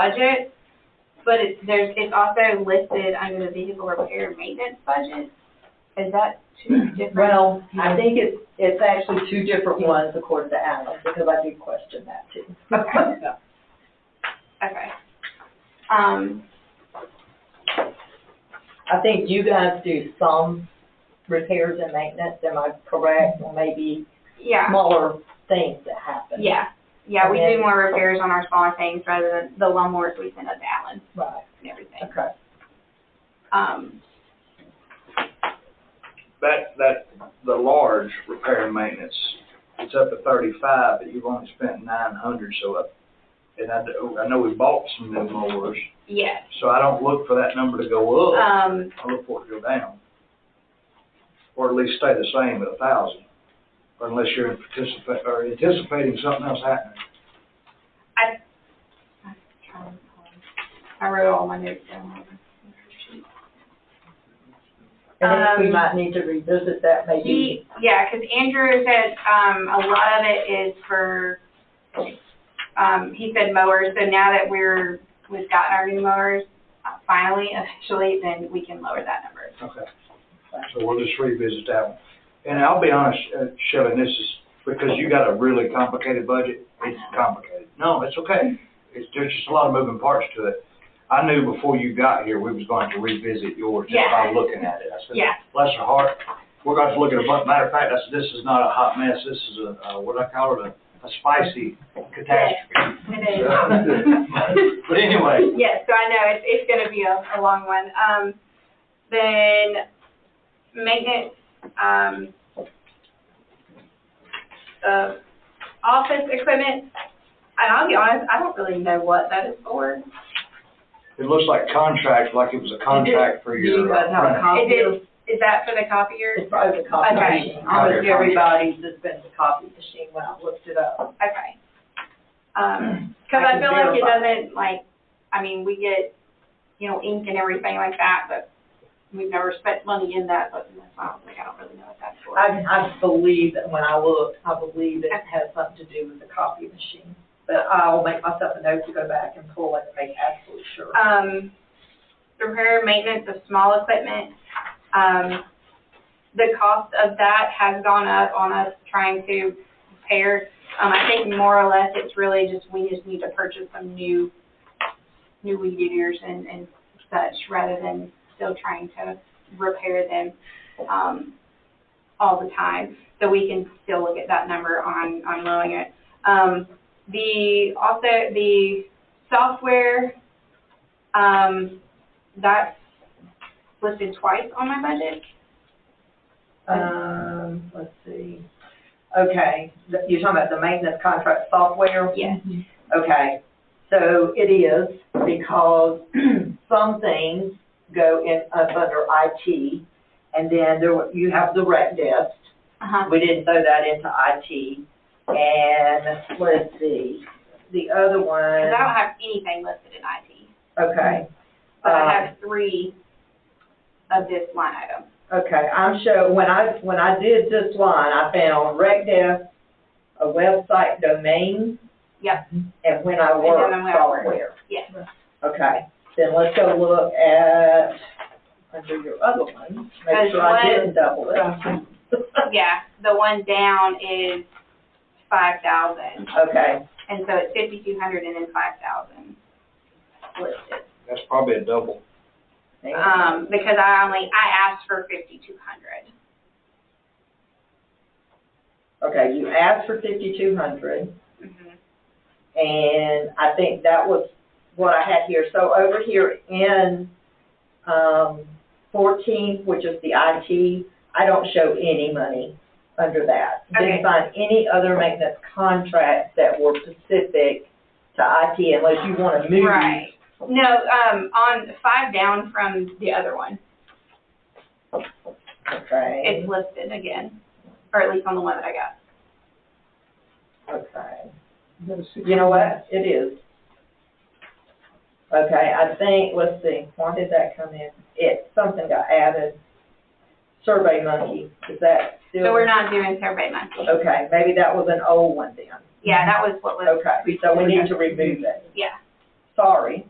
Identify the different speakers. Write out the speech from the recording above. Speaker 1: budget, but it's, there's, it's also listed under the vehicle repair maintenance budget. Is that two different?
Speaker 2: Well, I think it's, it's actually two different ones according to Alan, because I did question that too.
Speaker 1: Okay. Um,
Speaker 2: I think you guys do some repairs and maintenance, am I correct? Or maybe
Speaker 1: yeah,
Speaker 2: smaller things that happen.
Speaker 1: yeah, yeah, we do
Speaker 2: Okay.
Speaker 1: more repairs on our smaller things rather than the lawnmowers we send up to Allen
Speaker 2: Right,
Speaker 1: and everything.
Speaker 2: okay.
Speaker 1: Um,
Speaker 3: That, that, the large repair and maintenance, it's up to thirty-five, but you've only spent nine hundred, so up. And I, do- I know we bought some new mowers,
Speaker 1: yes,
Speaker 3: so I don't look for that number to go up,
Speaker 1: um,
Speaker 3: I look for it to go down. Or at least stay the same at a thousand, unless you're anticipating, or anticipating something else happening.
Speaker 1: I wrote all my notes down.
Speaker 2: And then we
Speaker 1: Um,
Speaker 2: might need to revisit that maybe.
Speaker 1: He, yeah, 'cause Andrew said, um, a lot of it is for, um, he said mowers, so now that we're, we've gotten our new mowers, uh, finally, officially, then we can lower that number.
Speaker 3: Okay. So we'll just revisit that one. And I'll be honest, uh, Shelley, this is because you got a really complicated budget. It's complicated. No, it's okay. It's, there's just a lot of moving parts to it. I knew before you got here, we was going to revisit yours just by
Speaker 1: Yeah.
Speaker 3: looking at it. I said,
Speaker 1: Yeah,
Speaker 3: bless her heart, we're going to look at a bunch. Matter of fact, I said, this is not a hot mess. This is a, uh, what do I call it, a, a spicy catastrophe.
Speaker 1: it is.
Speaker 3: But anyway,
Speaker 1: Yes, so I know it's, it's gonna be a, a long one. Um, then maintenance, um, of office equipment, and I'll be honest, I don't really know what that is for.
Speaker 3: it looks like contract, like it was a contract for your.
Speaker 4: You guys have a
Speaker 1: Is
Speaker 4: copy of,
Speaker 1: it, is that for the copier?
Speaker 2: It's probably the copy
Speaker 1: Okay.
Speaker 2: machine.
Speaker 4: almost
Speaker 3: Okay.
Speaker 4: everybody's just been the copy machine when I looked it up.
Speaker 1: Okay. Um, cause
Speaker 4: I
Speaker 1: I
Speaker 4: can
Speaker 1: feel like it
Speaker 4: verify.
Speaker 1: doesn't, like, I mean, we get, you know, ink and everything like that, but we've never spent money in that, but that's why I was like, I don't really know what that's for.
Speaker 2: I, I believe that when I looked, I believe it has something to do with the copy machine. But I'll make myself a note to go back and pull it and make absolutely sure.
Speaker 1: um, repair and maintenance of small equipment. Um, the cost of that has gone up on us trying to repair. Um, I think more or less it's really just, we just need to purchase some new, new weed eaters and, and such rather than still trying to repair them, um, all the time. So we can still look at that number on, on lowering it. Um, the, also, the software um, that's listed twice on my budget.
Speaker 4: Um, let's see. Okay, th- you're talking about the maintenance contract software?
Speaker 1: Yes.
Speaker 4: Okay, so it is because some things go in, up under IT. And then there, were- you have the rec desk.
Speaker 1: Uh-huh.
Speaker 4: We didn't throw that into IT. And let's see, the other
Speaker 1: Because I
Speaker 4: one,
Speaker 1: don't have anything listed in IT,
Speaker 4: okay.
Speaker 1: but I
Speaker 4: Uh,
Speaker 1: have three of this line item.
Speaker 4: Okay, I'm sure, when I, when I did this line, I found rec dev, a website domain.
Speaker 1: Yep.
Speaker 4: And when I
Speaker 1: And
Speaker 4: work
Speaker 1: then when I work.
Speaker 4: software.
Speaker 1: Yes.
Speaker 4: Okay, then let's go look at, under your other one, make
Speaker 1: There's
Speaker 4: sure I
Speaker 1: one-
Speaker 4: didn't double
Speaker 1: Uh-huh.
Speaker 4: it.
Speaker 1: Yeah, the one down is five thousand,
Speaker 4: Okay,
Speaker 1: and so it's fifty-two hundred and then five thousand listed.
Speaker 3: That's probably a double.
Speaker 4: thank you.
Speaker 1: Um, because I only, I asked for fifty-two hundred.
Speaker 4: okay, you asked for fifty-two hundred,
Speaker 1: Mhm.
Speaker 4: and I think that was what I had here. So over here in, um, fourteen, which is the IT, I don't show any money under that.
Speaker 1: Okay.
Speaker 4: Didn't find any other maintenance contracts that were specific to IT unless you want to move.
Speaker 1: Right. No, um, on five down from the other one,
Speaker 4: Okay.
Speaker 1: it's listed again, or at least on the one that I got.
Speaker 4: Okay. You know what? It is. Okay, I think, let's see, why did that come in? It, something got added. Survey Monkey, is that still?
Speaker 1: So we're not doing survey monkey.
Speaker 4: Okay, maybe that was an old one then.
Speaker 1: Yeah, that was what was,
Speaker 4: Okay, so we need to remove it.
Speaker 1: yeah.
Speaker 4: sorry.